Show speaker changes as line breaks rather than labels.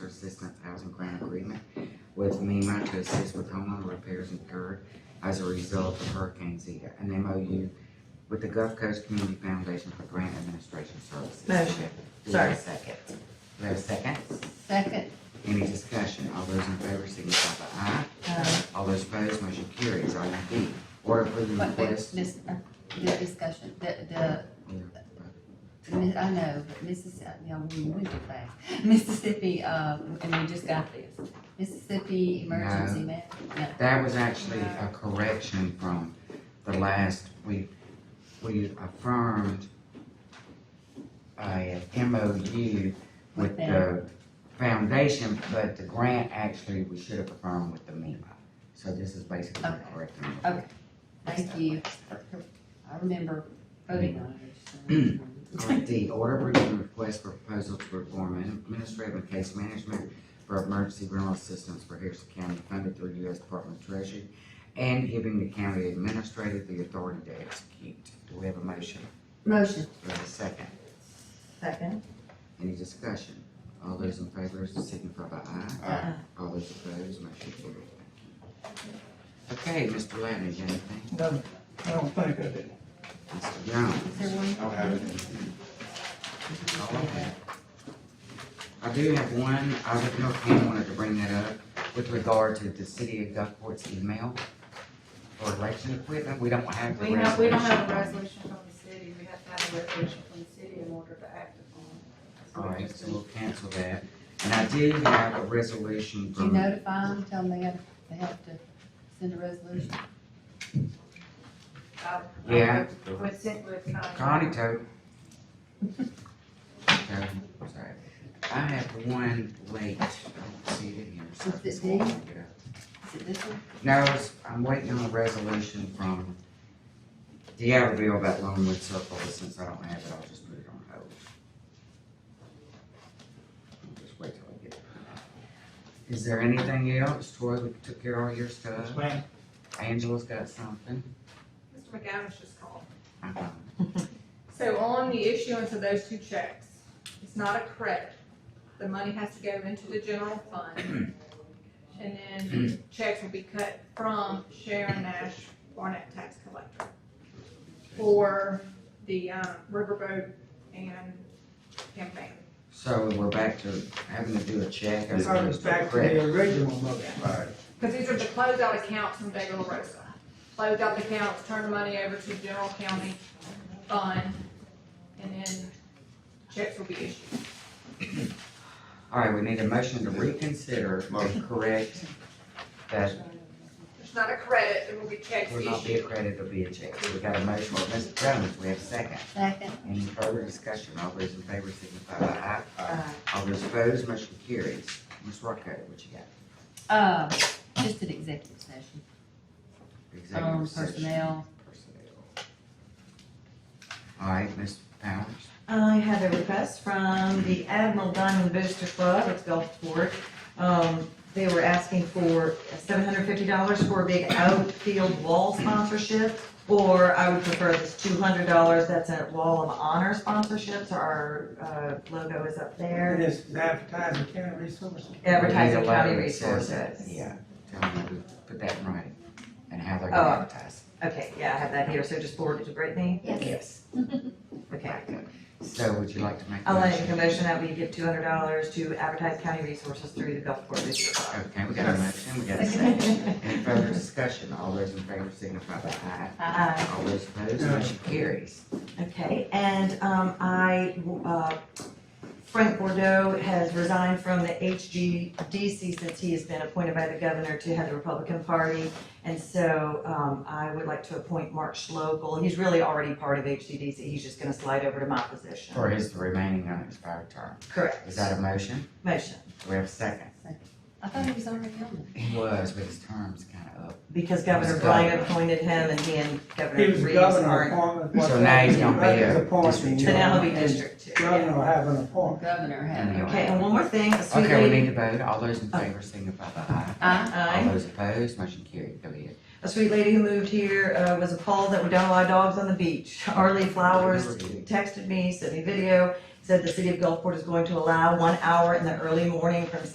Assistance Housing Grant Agreement with MEMA to assist with homeowner repairs incurred as a result of Hurricane Zeta. An MOU with the Gulf Coast Community Foundation for Grant Administration Services.
Motion.
Do we have a
Sorry.
second? Do we have a second?
Second.
Any discussion? All those in favor signify by aye.
Uh,
All those opposed, motion carries. Item B, order approving
Wait, wait,
request.
Miss, uh, the discussion, the, the, mi- I know, but Mississippi, you know, we went too fast. Mississippi, uh, and we just got this, Mississippi Emergency Man,
That was actually a correction from the last, we, we affirmed a MOU with
With
the foundation, but the grant actually, we should have affirmed with the MEMA. So this is basically
Okay.
correcting. it.
Okay. thank you. I remember voting on it. so-
Alright, D, order approving request for proposal to reform administrative and case management for emergency rental assistance for Harrison County funded through U.S. Department of Treasury and giving the county administrator the authority to execute. Do we have a motion?
Motion.
Do we have a second?
Second.
Any discussion? All those in favor signify by aye.
Aye.
All those opposed, motion carries. Okay, Mr. Ladner, you got anything?
No, I don't think I did.
Mr. Jones?
Is there one?
I'll have it.
all of that. I do have one, I don't know if Pam wanted to bring that up with regard to the city of Gulfport's email for election equipment, we don't have the
We have, we don't have a resolution
resolution.
from the city, we have to have a resolution from the city in order to act
All
upon it.
right, so we'll cancel that, and I did have a resolution
Do you
from,
notify them, tell them they have, they have to send a resolution?
Uh,
yeah,
With, cit- with. uh,
Connie told. Okay, sorry. I have one late, I don't see it in here, so.
Is it
I'm
D?
gonna get up.
Is it this one?
No, it's- I'm waiting on a resolution from the Abbeville about Longwood Circle, but since I don't have it, I'll just put it on hold. I'll Just wait till I get it. Is there anything else? Troy, we took care of all your stuff.
ma'am.
Angela's got something.
Mr. McAdams just called.
Uh-huh.
So on the issuance of those two checks, it's not a credit. The money has to go into the general fund. And then checks will be cut from Sharon Nash Barnett Tax Collector for the, uh, riverboat and campaign.
So we're back to having to do a check as
I was
opposed to a
back to the
credit.
original motion.
Right.
Cause these are the closeout accounts from De La Rosa. Closeout accounts, turn the money over to general county fund, and then checks will be issued.
All right, we need a motion to reconsider, to correct that
It's not a credit, it will be checks
will not be a
issued.
credit, it'll be a check. We got a motion by Mr. Jones, we have a second.
Second,
Any further discussion? All those in favor signify by aye.
Aye.
All those opposed, motion carries. Ms. Rocco, what you got?
uh, just an executive session, um,
Um,
Executive session.
personnel,
Personnel. All right, Ms. Powers.
I have a request from the Admiral Diamond Booster Club at Gulfport. Um, they were asking for seven hundred fifty dollars for a big outfield wall sponsorship, or I would prefer this two hundred dollars, that's a wall of honor sponsorship, so our, uh, logo is up
It
there.
is advertising county resources.
Advertising
We need a
county
letter that says that.
resources.
Yeah, tell them to put that in writing and how they're
Oh.
gonna advertise.
Okay, yeah, I have that here, so just forward it to Brittany?
Yes.
Okay.
So would you like to make a
I'll
motion?
make a motion that we give two hundred dollars to advertise county resources through the Gulfport Booster Club.
Okay, we got a motion, we got a second. Any further discussion? All those in favor signify by aye.
Uh,
All those opposed, motion carries.
Okay, and, um, I, uh, Frank Bordeaux has resigned from the HGDC since he has been appointed by the governor to head the Republican Party. And so, um, I would like to appoint Mark Schlogel. He's really already part of HGDC. He's just gonna slide over to my position.
For his remaining unexpired term.
Correct.
Is that a motion?
Motion,
Do we have a second?
I thought he was already on
He was, but his term's kind of up.
because Governor Bryan appointed him and he and
He
Governor
was
Reeves
governor
aren't.
appointment. what's
So now he's
that?
gonna be
That is
a
appointment,
So now he'll be District Two. yeah.
Governor will have an
there,
appointment.
governor had it.
Okay, and one more thing, a sweet
Okay, we
lady,
need to vote. All those in favor signify by aye.
Aye.
aye.
All those opposed, motion carried. Go ahead.
a sweet lady who moved here, uh, was appalled that we don't allow dogs on the beach. Arlie Flowers texted me, sent me video, said the city of Gulfport is going to allow one hour in the early morning from